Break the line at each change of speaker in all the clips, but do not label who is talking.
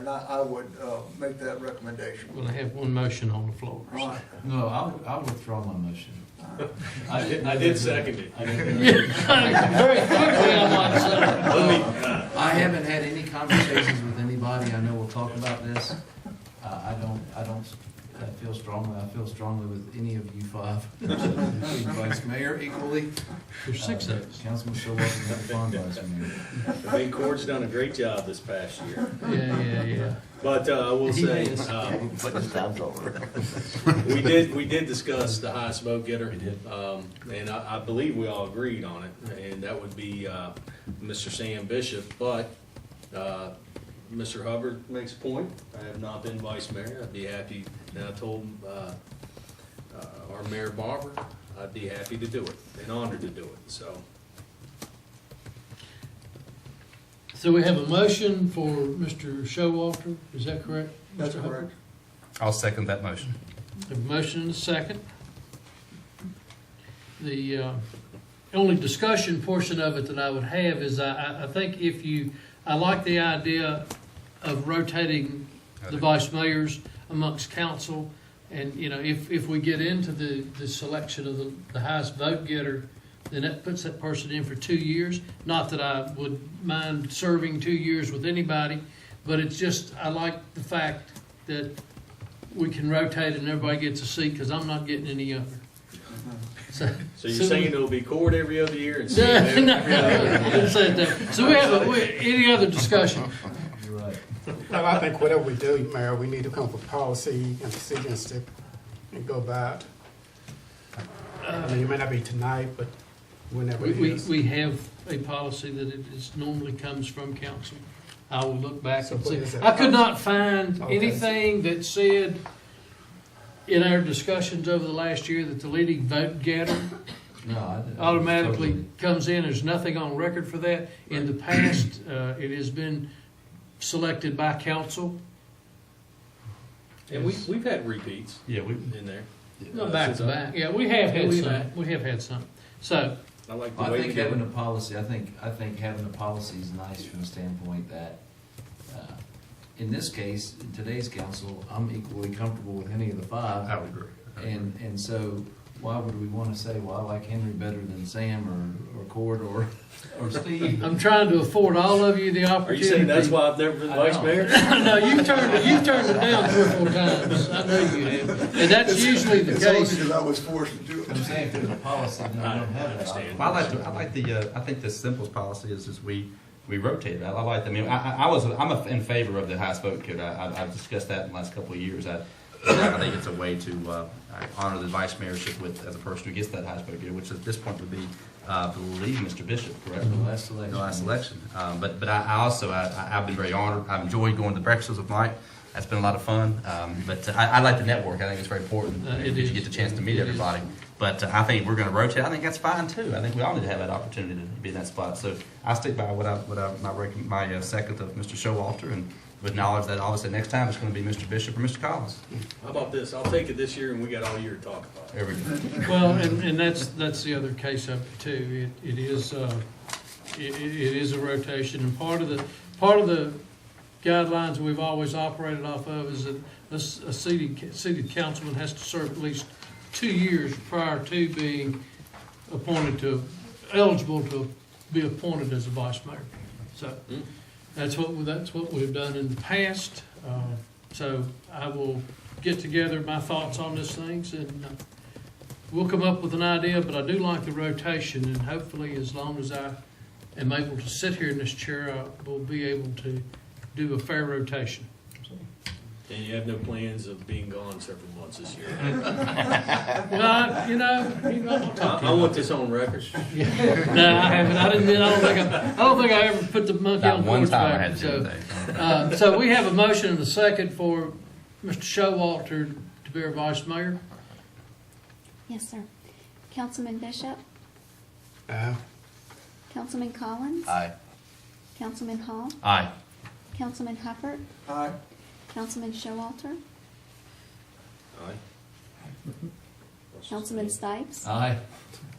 And I, I would, uh, make that recommendation.
We're gonna have one motion on the floor.
All right.
No, I'll, I'll withdraw my motion. I did,
Uh, I did second it.
I didn't-
Very quickly, I'm like, so-
I haven't had any conversations with anybody, I know we'll talk about this. Uh, I don't, I don't, I feel strongly, I feel strongly with any of you five, including Vice Mayor equally.
There's six of us.
Uh, Councilman Showalter, and Fond Vice Mayor.
I think Court's done a great job this past year.
Yeah, yeah, yeah.
But uh, I will
He
say,
is.
uh,
But his time's over.
we did, we did discuss the high smoke getter. We did. And I, I believe we all agreed on it, and that would be uh, Mr. Sam Bishop. But uh, Mr. Hubbard makes a point. I have not been vice mayor. I'd be happy, and I told uh, uh, our Mayor Barber, I'd be happy to do it and honored to do it, so.
So we have a motion for Mr. Showalter, is that correct?
That's
Mr. Hubbard?
correct.
I'll second that motion.
A motion and a second. The uh, only discussion portion of it that I would have is I- I, I think if you, I like the idea of rotating the vice mayors amongst council. And, you know, if, if we get into the, the selection of the, the highest vote getter, then that puts that person in for two years. Not that I would mind serving two years with anybody, but it's just, I like the fact that we can rotate and everybody gets a seat, cause I'm not getting any uh, younger. So,
So you're saying it'll be Court every other year and
no,
Sam every
no,
every other? year?
I didn't say that. So we have, a- we, any other discussion?
You're right.
No, I think whatever we do, Mayor, we need to come up with policy and decisions to, and go by it. I mean, it may not be tonight, but whenever
We,
it
we,
is.
we have a policy that it is normally comes from council. I will look back
So
and
what
see.
is that
I could not find
Okay.
anything that said in our discussions over the last year that the leading vote getter
No, I. didn't-
automatically comes in. There's nothing on record for that. In the past, uh, it has been selected by council.
And we, we've had repeats
Yeah, we,
in there.
No,
Uh,
back
since
to
I-
back. Yeah, we have had
We've
some.
had-
We have had some. So,
I like the
I
way
think
you do
having
it.
a policy, I think, I think having a policy is nice from the standpoint that, uh, in this case, in today's council, I'm equally comfortable with any of the
I
five.
Oh,
would agree.
And, and so why would we wanna say, well, I like Henry better than Sam or, or Cord or, or Steve?
I'm trying to afford all of you the
Are
opportunity.
you saying that's why I've never been
I
vice
know.
mayor?
No, you've turned, it- you've turned it down three or four times. I know you have. And that's usually the
It's only
case.
because I was forced to do it.
I'm saying if there's a policy, then I don't have that.
I understand.
Well, I like, the- I like the, uh, I think the simplest policy is, is we, we rotate that. I like, the- I mean, I, I- I was, I'm a- in favor of the highest vote kit. I, I- I've discussed that in the last couple of years. I, I think it's a way to, uh, honor the vice mayorship with, as a person who gets that highest vote kit, which at this point would be, uh, I believe Mr. Bishop, correct?
The Mm-hmm. last election.
the last election. Um, but but I, I also I, I- I've been very honored. I've enjoyed going to breakfasts with Mike. That's been a lot of fun. Um, but uh, I, I like the network. I think it's very important
Uh, it
that
is.
you get the chance to meet
It is.
everybody. But uh, I think we're going to rotate. I think that's fine too. I think we all need to have that opportunity to be in that spot. So I stick by what I what I, my rec- my uh, second of Mr. Showalter and with knowledge that obviously next time it's going to be Mr. Bishop or Mr. Collins.
How about this? I'll take it this year and we got all year to talk about it.
There we go.
Well, and, and that's, that's the other case of it too. It, it is, uh, it, it it is a rotation and part of the, part of the guidelines we've always operated off of is that a, s- a seated, seated councilman has to serve at least two years prior to being appointed to, eligible to be appointed as a vice mayor. So that's what, that's what we've done in the past. Uh, So I will get together my thoughts on these things and uh, We'll come up with an idea, but I do like the rotation, and hopefully, as long as I am able to sit here in this chair, I will be able to do a fair rotation.
And you have no plans of being gone several months this year.
Well, I- you know, you know, I'll
I,
talk to
I want this on record.
you. No, I haven't, I didn't, I don't think I, I don't think I ever put the monkey
Not
on
one
horseback.
time I had to do
so-
anything.
Uh, So we have a motion and a second for Mr. Showalter to be our vice mayor.
Yes, sir. Councilman Bishop,
Uh,
Councilman Collins,
Aye.
Councilman Hall,
Aye.
Councilman Hubbard,
Aye.
Councilman Showalter,
Aye.
Councilman Stipes,
Aye.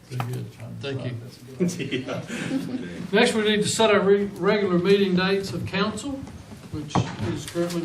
Very good. Thank you.
Yeah.
Next, we need to set our re- regular meeting dates of council. which is currently